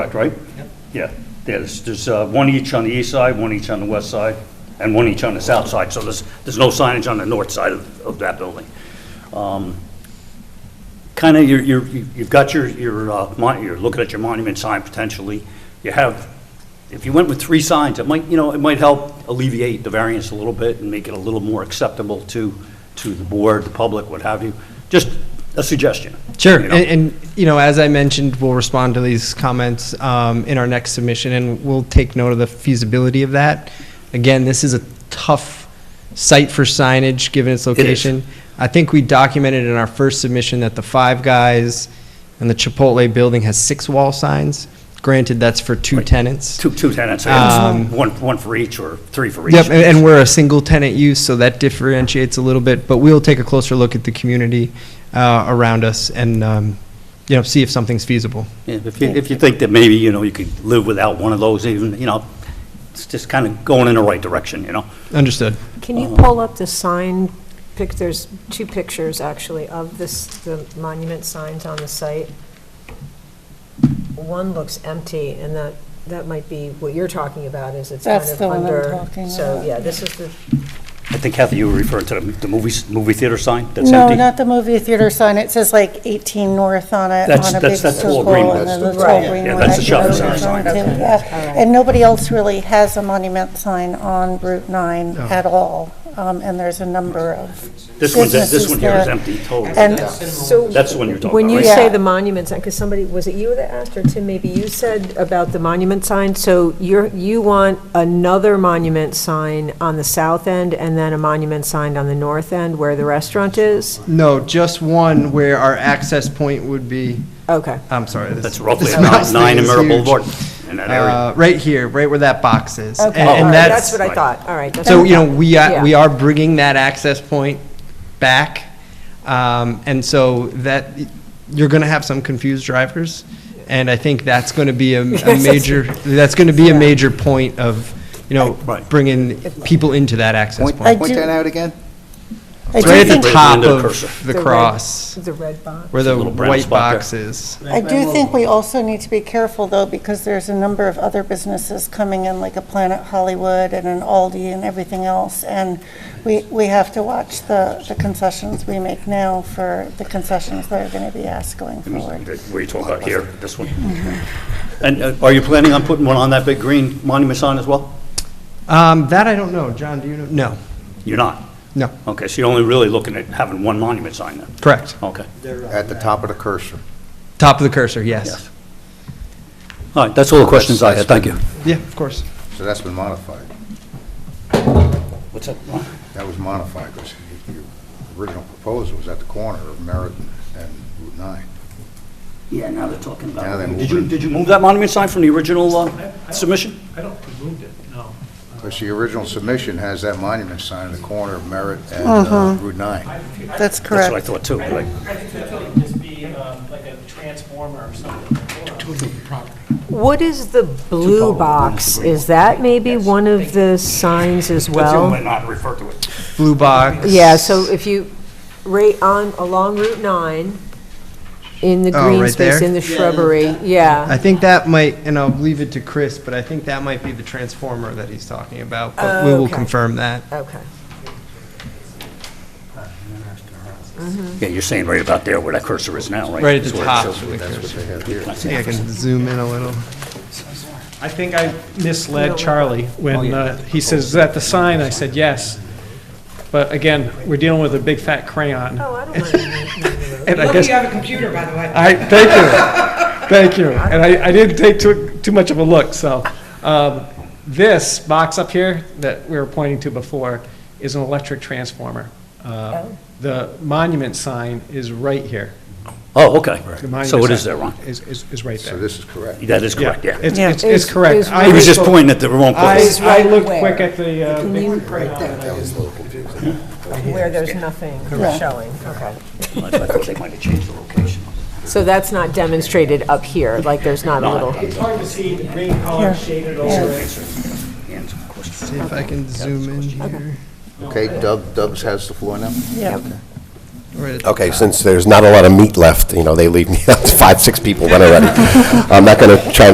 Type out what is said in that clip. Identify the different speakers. Speaker 1: Correct, right? Yeah, there's, there's uh, one each on the east side, one each on the west side, and one each on the south side, so there's, there's no signage on the north side of, of that building. Kind of, you're, you're, you've got your, your, uh, mon- you're looking at your monument sign potentially. You have, if you went with three signs, it might, you know, it might help alleviate the variance a little bit and make it a little more acceptable to, to the board, the public, what have you. Just a suggestion.
Speaker 2: Sure,
Speaker 1: you
Speaker 2: and,
Speaker 1: know?
Speaker 2: and you know, as I mentioned, we'll respond to these comments um, in our next submission, and we'll take note of the feasibility of that. Again, this is a tough site for signage, given its location. I think we documented in our first submission that the Five Guys and the Chipotle building has six wall signs. Granted, that's for two tenants.
Speaker 1: Two, two tenants,
Speaker 2: Um,
Speaker 1: one, one for each or three for each.
Speaker 2: Yep, and, and we're a single tenant use, so that differentiates a little bit, but we'll take a closer look at the community uh, around us and, um, you know, see if something's feasible.
Speaker 1: Yeah, If you, if you think that maybe, you know, you could live without one of those even, you know, it's just kind of going in the right direction, you know?
Speaker 2: Understood.
Speaker 3: Can you pull up the sign, pic, there's two pictures actually of this, the monument signs on the site. One looks empty and that, that might be what you're talking about is it's kind
Speaker 4: That's
Speaker 3: of
Speaker 4: the one I'm
Speaker 3: under.
Speaker 4: talking
Speaker 3: So,
Speaker 4: about.
Speaker 3: yeah, this is the,
Speaker 1: I think Kathy, you were referring to the the movie, movie theater sign that's
Speaker 4: No,
Speaker 1: empty?
Speaker 4: not the movie theater sign. It says like 18 North on it,
Speaker 1: That's-
Speaker 4: on a
Speaker 1: that's-
Speaker 4: big
Speaker 1: that's Tall
Speaker 4: circle.
Speaker 1: Green one.
Speaker 4: and then the
Speaker 3: That's the-
Speaker 4: Tall
Speaker 3: Right.
Speaker 4: Green
Speaker 1: Yeah,
Speaker 4: one.
Speaker 1: that's the
Speaker 4: I
Speaker 1: shop
Speaker 4: think
Speaker 1: sign.
Speaker 4: it's on
Speaker 3: Okay,
Speaker 4: too,
Speaker 3: okay,
Speaker 4: yeah.
Speaker 3: all right.
Speaker 4: And nobody else really has a monument sign on Route 9 at all. Um, And there's a number of
Speaker 1: This one, this
Speaker 4: businesses
Speaker 1: one here is
Speaker 4: there.
Speaker 1: empty, totally.
Speaker 4: And
Speaker 3: so.
Speaker 1: That's the one you're talking
Speaker 3: When
Speaker 1: about,
Speaker 3: you
Speaker 1: right?
Speaker 3: say
Speaker 4: Yeah.
Speaker 3: the monument sign, because somebody, was it you that asked, or Tim, maybe you said about the monument sign? So you're, you want another monument sign on the south end and then a monument sign on the north end where the restaurant is?
Speaker 2: No, just one where our access point would be,
Speaker 3: Okay.
Speaker 2: I'm sorry. this-
Speaker 1: That's roughly
Speaker 2: this
Speaker 1: about
Speaker 2: mouse
Speaker 1: nine
Speaker 2: thing is
Speaker 1: Emerald
Speaker 2: huge.
Speaker 1: Boulevard in that area.
Speaker 2: Uh, Right here, right where that box is.
Speaker 3: Okay,
Speaker 2: And-
Speaker 3: all
Speaker 2: And
Speaker 3: right,
Speaker 2: that's,
Speaker 3: that's what I thought, all right. that's
Speaker 2: so,
Speaker 3: what I
Speaker 2: you know,
Speaker 3: thought.
Speaker 2: we are,
Speaker 3: Yeah.
Speaker 2: we are bringing that access point back. Um, And so that, you're going to have some confused drivers. And I think that's going to be a a major, that's going to be a major point of, you know,
Speaker 1: Right.
Speaker 2: bringing people into that access
Speaker 5: Point,
Speaker 2: point.
Speaker 5: point
Speaker 4: I do-
Speaker 5: that out again?
Speaker 4: I
Speaker 2: It's Right
Speaker 4: do
Speaker 2: at
Speaker 4: think,
Speaker 2: the
Speaker 1: Right
Speaker 2: top
Speaker 1: under the cursor.
Speaker 2: of the
Speaker 3: red-
Speaker 2: cross,
Speaker 3: The red box.
Speaker 2: where the
Speaker 1: little brown
Speaker 2: white
Speaker 1: spot there.
Speaker 2: box is.
Speaker 4: I do think we also need to be careful though, because there's a number of other businesses coming in, like a Planet Hollywood and an Aldi and everything else. And we, we have to watch the, the concessions we make now for the concessions that are going to be asked going forward.
Speaker 1: Where you talking about here, this one? And uh, are you planning on putting one on that big green monument sign as well?
Speaker 2: Um, That I don't know. John, do you know? No,
Speaker 1: You're not?
Speaker 2: no,
Speaker 1: Okay, so you're only really looking at having one monument sign then?
Speaker 2: correct.
Speaker 1: Okay.
Speaker 5: At the top of the cursor.
Speaker 2: Top of the cursor, yes.
Speaker 1: Yes. All right, that's all the questions I had, thank you.
Speaker 2: Yeah, of course.
Speaker 5: So that's been modified.
Speaker 1: What's that?
Speaker 5: That was modified because your original proposal was at the corner of Merritt and Route 9.
Speaker 1: Yeah, now they're talking
Speaker 5: Now they're
Speaker 1: about, did you,
Speaker 5: moving.
Speaker 1: did you move that monument sign from the original uh, submission?
Speaker 6: I don't think we moved it, no.
Speaker 5: Because the original submission has that monument sign at the corner of Merritt and uh, Route 9.
Speaker 4: That's
Speaker 1: That's what I
Speaker 4: correct.
Speaker 1: thought too, but I-
Speaker 7: I think that would just be um, like a transformer or something.
Speaker 3: What is the blue box? Is that maybe one of the signs as
Speaker 1: you
Speaker 3: well?
Speaker 1: might not refer to it.
Speaker 2: Blue box.
Speaker 3: Yeah, so if you, right on, along Route 9, in the
Speaker 2: Oh,
Speaker 3: green
Speaker 2: right
Speaker 3: space,
Speaker 2: there?
Speaker 3: in the shrubbery, yeah.
Speaker 2: I think that might, and I'll leave it to Chris, but I think that might be the transformer that he's talking about, but we will
Speaker 3: Okay.
Speaker 2: confirm that.
Speaker 3: Okay.
Speaker 1: Yeah, you're saying right about there where that cursor is now, right?
Speaker 2: Right at the
Speaker 1: That's where it
Speaker 2: top.
Speaker 1: shows.
Speaker 2: of the cursor.
Speaker 5: They have
Speaker 1: I
Speaker 5: here.
Speaker 2: I think I can zoom in a little.
Speaker 6: I think I misled Charlie
Speaker 1: Oh,
Speaker 6: when uh, he says, is that the sign? I said, yes. But again, we're dealing with a big fat crayon.
Speaker 3: Oh, I don't mind.
Speaker 6: And I guess,
Speaker 8: You have a computer, by the way.
Speaker 6: I, thank you, thank you. And I, I didn't take too, too much of a look, so. um, This box up here that we were pointing to before is an electric transformer. Uh,
Speaker 3: Oh.
Speaker 6: The monument sign is right here.
Speaker 1: Oh, okay.
Speaker 6: The monument
Speaker 1: So it is
Speaker 6: sign
Speaker 1: there, Ron.
Speaker 6: Is, is is right
Speaker 5: So
Speaker 6: there.
Speaker 5: this is correct.
Speaker 1: That is correct, yeah.
Speaker 6: It's, it's,
Speaker 3: Is-
Speaker 6: it's correct.
Speaker 3: is
Speaker 6: I
Speaker 1: He was just
Speaker 6: looked-
Speaker 1: pointing at the wrong
Speaker 6: I,
Speaker 1: place.
Speaker 6: I looked
Speaker 3: where?
Speaker 6: quick at the, uh, big
Speaker 3: Where there's nothing showing, okay.
Speaker 1: I thought they might have changed the location.
Speaker 3: So that's not demonstrated up here, like there's not a little,
Speaker 6: It's hard to see the green color shaded over it.
Speaker 1: And some questions.
Speaker 2: See if I can zoom in here.
Speaker 5: Okay, Dub, Dubs has the floor now?
Speaker 4: Yeah.
Speaker 2: Right at the
Speaker 9: Okay, since there's not a lot of meat left, you know, they leave me out to five, six people when I'm ready. I'm not going to try and